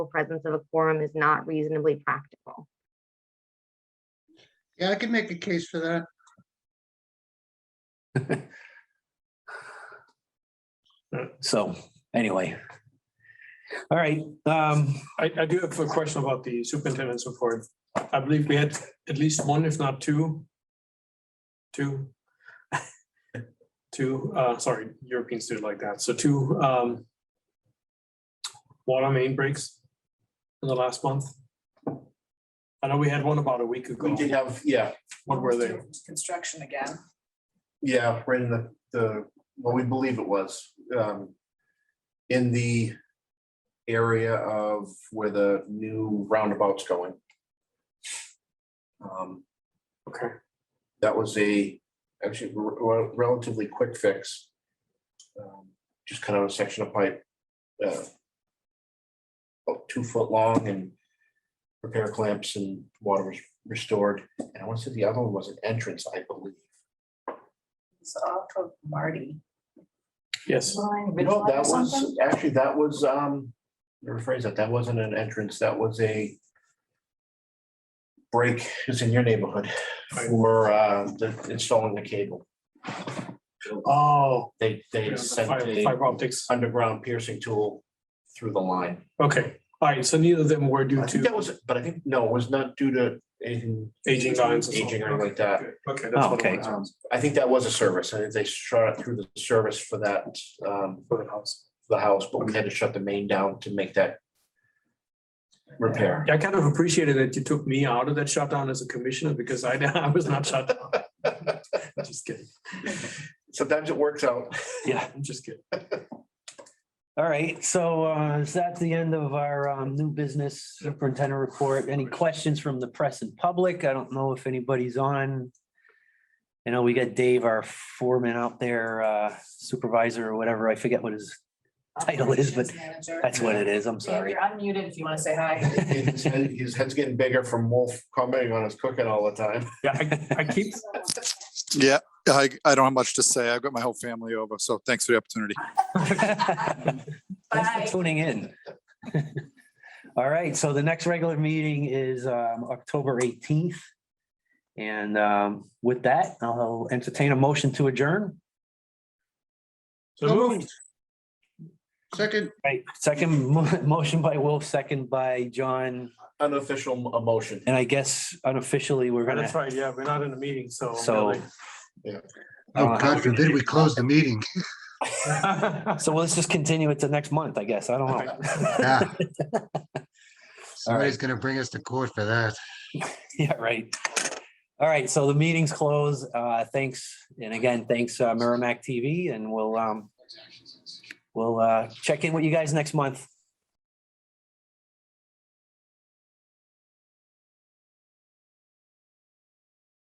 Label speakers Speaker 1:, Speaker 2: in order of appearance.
Speaker 1: presence of a quorum is not reasonably practical.
Speaker 2: Yeah, I can make a case for that.
Speaker 3: So anyway. All right, um,
Speaker 4: I, I do have a question about the superintendent's report. I believe we had at least one, if not two. Two. Two, uh, sorry, Europeans do it like that. So two, um. Water main breaks in the last month. I know we had one about a week ago.
Speaker 5: We did have, yeah,
Speaker 4: What were they?
Speaker 6: Construction again.
Speaker 5: yeah, right in the, the, what we believe it was, um, in the area of where the new roundabout's going. Um,
Speaker 4: Okay,
Speaker 5: that was a, actually re- relatively quick fix. Um, Just kind of a section of pipe. uh, About two foot long and repair clamps and water was restored. And I want to say the other one was an entrance, I believe.
Speaker 6: It's off of Marty.
Speaker 4: yes,
Speaker 5: No, that
Speaker 6: Or
Speaker 5: was,
Speaker 6: something?
Speaker 5: actually, that was, um, let me rephrase that, that wasn't an entrance, that was a break, it's in your neighborhood for, uh, the- installing the cable.
Speaker 4: oh.
Speaker 5: They, they sent
Speaker 4: Fiber
Speaker 5: a
Speaker 4: fiber optics.
Speaker 5: underground piercing tool through the line.
Speaker 4: Okay, all right, so neither of them were due
Speaker 5: I think that
Speaker 4: to
Speaker 5: was, but I think, no, it was not due to anything.
Speaker 4: aging lines. or
Speaker 5: Aging or
Speaker 4: something.
Speaker 5: anything like that.
Speaker 4: Okay, that's what
Speaker 3: Okay.
Speaker 4: it
Speaker 5: Um,
Speaker 4: was.
Speaker 5: I think that was a service, and they shot it through the service for that, um,
Speaker 4: For the house.
Speaker 5: for the house, but we had to shut the main down to make that repair.
Speaker 4: I kind of appreciated that you took me out of that shutdown as a commissioner because I, I was not shut down. Just kidding.
Speaker 5: Sometimes it works out.
Speaker 3: yeah,
Speaker 4: I'm just kidding.
Speaker 3: all right, so uh, is that the end of our um, new business superintendent report? Any questions from the press and public? I don't know if anybody's on. You know, we got Dave, our foreman out there, uh, supervisor or whatever, I forget what his, title is, but
Speaker 6: Operations manager.
Speaker 3: that's what it is, I'm
Speaker 6: Dave,
Speaker 3: sorry.
Speaker 6: You're unmuted if you want to say hi.
Speaker 5: His head- his head's getting bigger from Wolf commenting on his cooking all the time.
Speaker 4: Yeah, I, I keep,
Speaker 7: Yeah, I, I don't have much to say. I've got my whole family over, so thanks for the opportunity.
Speaker 3: Thanks for
Speaker 6: Bye.
Speaker 3: tuning in. All right, so the next regular meeting is um, October 18th. And um, with that, I'll entertain a motion to adjourn.
Speaker 4: so moved.
Speaker 2: Second,
Speaker 3: Right, second mo- motion by Wolf, second by John,
Speaker 5: Unofficial m- emotion.
Speaker 3: and I guess unofficially, we're gonna,
Speaker 4: That's right. Yeah, we're not in a meeting, so.
Speaker 3: so.
Speaker 2: oh
Speaker 3: Uh,
Speaker 2: God forbid we close the meeting.
Speaker 4: really.
Speaker 3: So let's just continue it to next month, I guess. I don't know.
Speaker 2: Yeah. Somebody's gonna bring us to court for that.
Speaker 3: Yeah, right. All right, so the meeting's closed. Uh, thanks. And again, thanks uh, Merrimack TV and we'll um, we'll uh, check in with you guys next month.